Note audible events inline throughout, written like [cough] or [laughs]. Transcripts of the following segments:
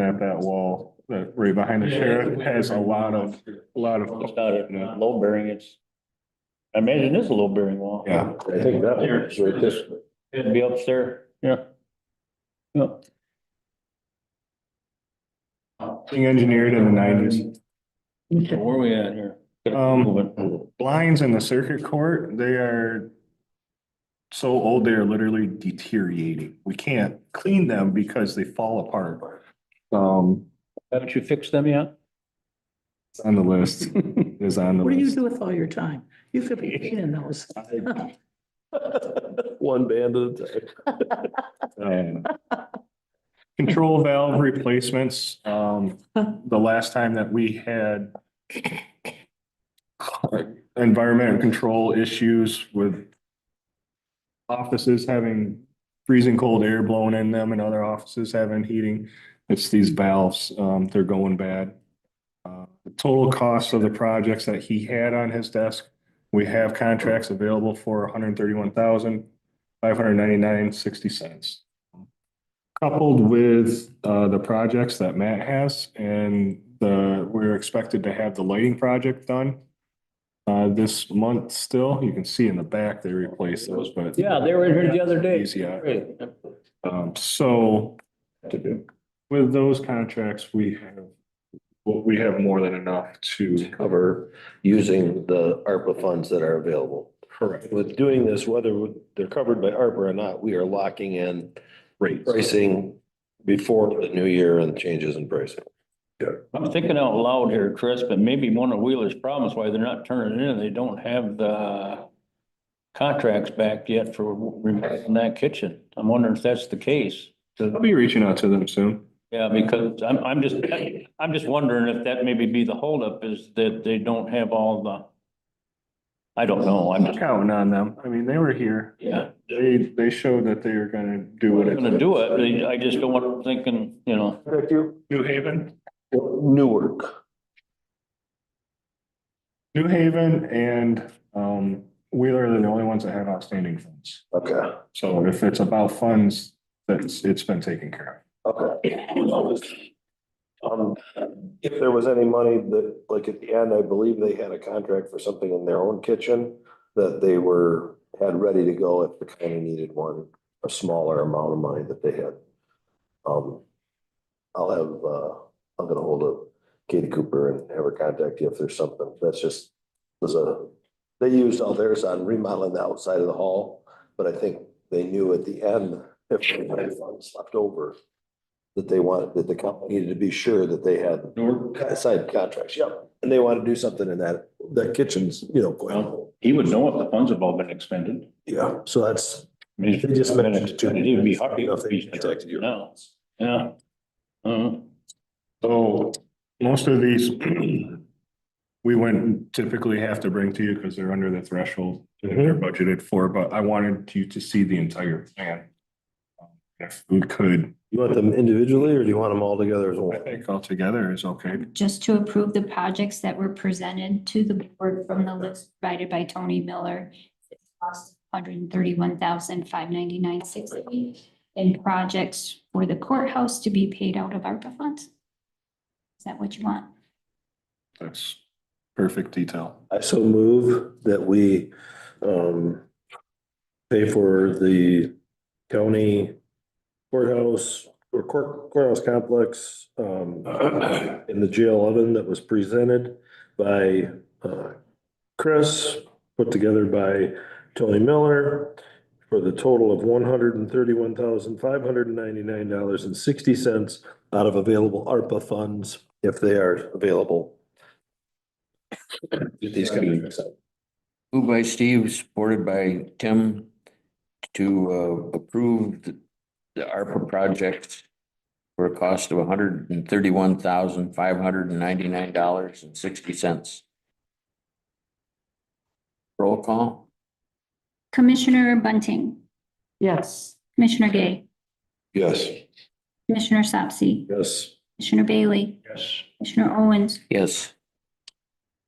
at that wall, that right behind the sheriff has a lot of, a lot of. It's not a low bearing, it's. I imagine it's a low bearing wall. Yeah. I think that one's right this, It'd be upstairs, yeah. Yeah. Being engineered in the nineties. So where are we at here? Um, Moving. Blinds in the circuit court, they are so old, they are literally deteriorating. We can't clean them because they fall apart. Um, Haven't you fixed them [laughs] yet? it's on the list, It's on the What do you list. do with all your time? You could be cleaning those. one band at a time. [laughs] Um, Control valve replacements, um, the last time that we had environmental control issues with offices having freezing cold air blown in them and other offices having heating. It's these valves, um, they're going bad. Uh, The total cost of the projects that he had on his desk, we have contracts available for $131,599.60. cents. Coupled with, uh, the projects that Matt has and the, we're expected to have the lighting project done. Uh, this month still, you can see in the back, they replaced those, but. Yeah, they were in here the other day. Easy, yeah. Great. Um, so with those contracts, we have, well, we have more than enough to Cover using the ARPA funds that are available. correct With doing this, whether they're covered by ARPA or not, we are locking in rates. pricing before the new year and changes in pricing. I'm thinking out loud here, Chris, but maybe one of Wheeler's problems why they're not turning it in, they don't have the contracts back yet for removing that kitchen. I'm wondering if that's the case. I'll be reaching out to them soon. Yeah, because I'm, I'm just, I'm just wondering if that maybe be the holdup is that they don't have all the. I don't know, I'm just, Counting on them. I mean, they were here. yeah, They, they showed that they were gonna do what we're it. gonna do it, but I just don't want them thinking, you know, New Haven, Newark. New Haven and, um, Wheeler are the only ones that have outstanding funds. Okay, So if it's about funds, that's, it's been taken care of. okay. Um, if there was any money that, like at the end, I believe they had a contract for something in their own kitchen that they were, had ready to go if the county needed one, a smaller amount of money that they had. Um, I'll have, uh, I'm gonna hold up Katie Cooper and have her contact you if there's something. That's just, there's a, they used all theirs on remodeling the outside of the hall, but I think they knew at the end, if they had funds left over, that they wanted, that the company needed to be sure that they had Newark, signed contracts, yep. And they want to do something in that, that kitchen's, you know, going on. he would know if the funds have all been expended. Yeah, so that's. I mean, They just mentioned it to me. It'd be hard. I don't know if they contacted you. No, yeah. Uh, So most of these, [clears throat] we wouldn't typically have to bring to you because they're under the threshold that Mm-hmm. they're budgeted for, but I wanted you to see the entire plan. Um, If we could, You want them individually or do you want them all together as I one? think altogether is okay. just to approve the projects that were presented to the board from the list provided by Tony Miller. It cost Hundred and thirty-one thousand five ninety-nine sixty and projects for the courthouse to be paid out of ARPA funds. Is that what you want? That's perfect detail. I so move that we, um, pay for the county courthouse or court, courthouse complex, um, in the jail oven that was presented by, uh, Chris, put together by Tony Miller for the total of one hundred and thirty-one thousand, five hundred and ninety-nine dollars and sixty cents out of available ARPA funds, if they are available. These companies. Moved by Steve, supported by Tim to uh, approve the the ARPA project for a cost of hundred and thirty-one thousand, five hundred and ninety-nine dollars and sixty cents. Roll call? Commissioner Bunting, Yes. Commissioner Gay, Yes. Commissioner Sapsy, Yes. Commissioner Bailey, yes. Commissioner Owens, Yes.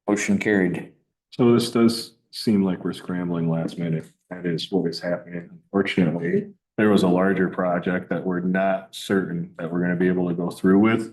Motion carried. So this does seem like we're scrambling last minute. That is what is happening. Unfortunately, there was a larger project that we're not certain that we're gonna be able to go through with.